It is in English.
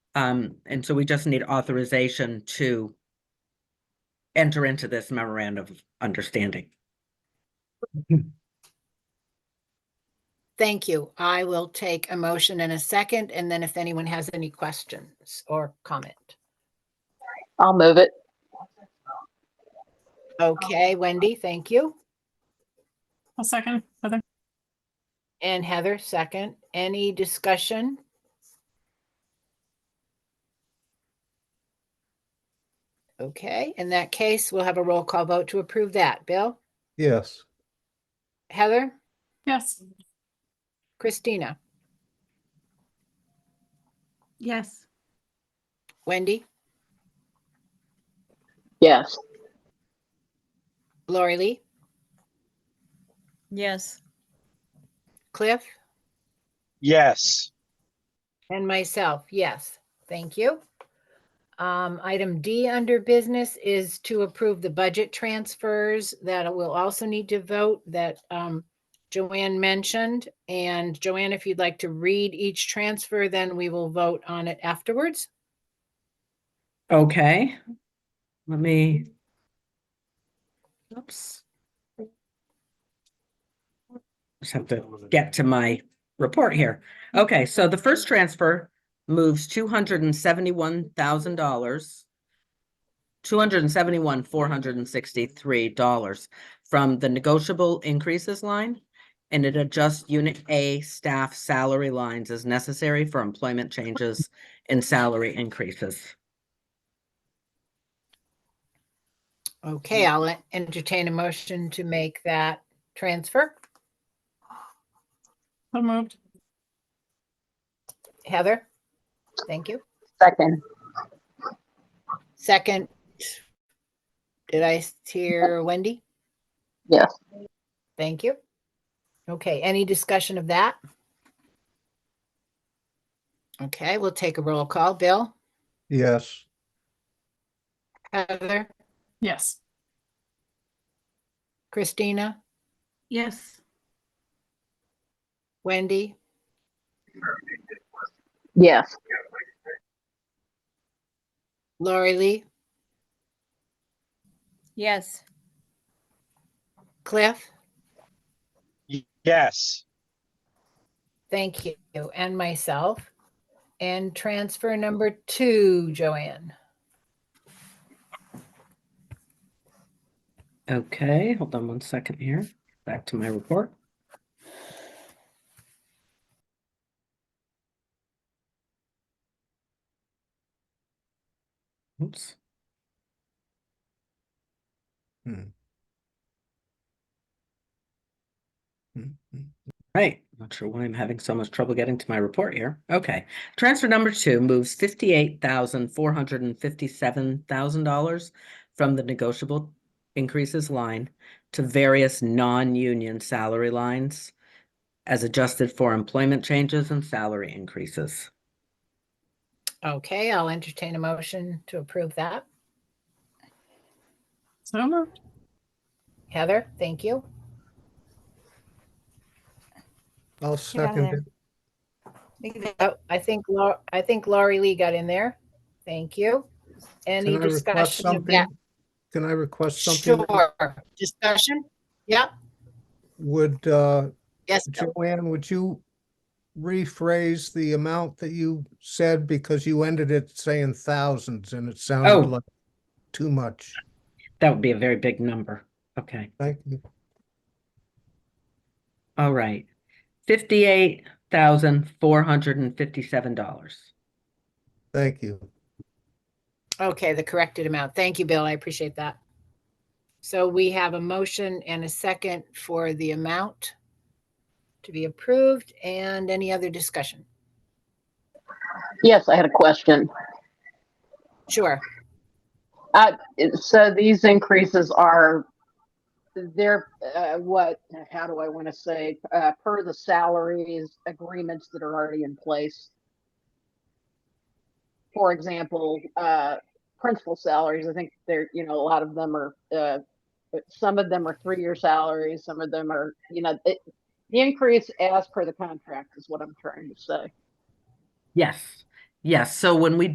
Um, and so we just need authorization to enter into this memorandum of understanding. Thank you. I will take a motion in a second, and then if anyone has any questions or comment. I'll move it. Okay, Wendy, thank you. I'll second, Heather. And Heather, second. Any discussion? Okay, in that case, we'll have a roll call vote to approve that. Bill, Yes. Heather, Yes. Christina, Yes. Wendy, Yes. Lori Lee, Yes. Cliff, Yes. and myself. Yes, thank you. Um, item D under business is to approve the budget transfers that we'll also need to vote that um, Joanne mentioned. And Joanne, if you'd like to read each transfer, then we will vote on it afterwards. Okay. Let me. Oops. Just have to get to my report here. Okay, so the first transfer moves two hundred and seventy-one thousand dollars. Two hundred and seventy-one, four hundred and sixty-three dollars from the negotiable increases line. And it adjusts unit A staff salary lines as necessary for employment changes and salary increases. Okay, I'll entertain a motion to make that transfer. So moved. Heather? Thank you. Second. Second. Did I s- hear Wendy? Yes. Thank you. Okay, any discussion of that? Okay, we'll take a roll call. Bill, Yes. Heather, Yes. Christina, Yes. Wendy, Yes. Lori Lee, Yes. Cliff, Y- Yes. thank you, and myself. And transfer number two, Joanne. Okay, hold on one second here. Back to my report. Oops. Right, not sure why I'm having so much trouble getting to my report here. Okay, transfer number two moves fifty-eight thousand, four hundred and fifty-seven thousand dollars from the negotiable increases line to various non-union salary lines as adjusted for employment changes and salary increases. Okay, I'll entertain a motion to approve that. So moved. Heather, thank you. Get I'll out of second it. there. Oh, I think Lau, I think Laurie Lee got in there. Thank you. Any Can I request discussion of something? that? Can I request something? Sure, discussion? Yep, Would, uh, yes, Bill. Joanne, would you rephrase the amount that you said because you ended it saying thousands and it Oh. sounded like too much. That would be a very big number. Okay. Thank you. All right. Fifty-eight thousand four hundred and fifty-seven dollars. Thank you. okay, the corrected amount. Thank you, Bill, I appreciate that. So we have a motion and a second for the amount to be approved and any other discussion? Yes, I had a question. Sure, It- So these increases are, they're, uh, what, how do I want to say, uh, per the salaries agreements that are already in place? For example, uh, principal salaries, I think they're, you know, a lot of them are, uh, but some of them are three-year salaries, some of them are, you know, it, the increase as per the contract is what I'm trying to say. Yes. Yes, so when we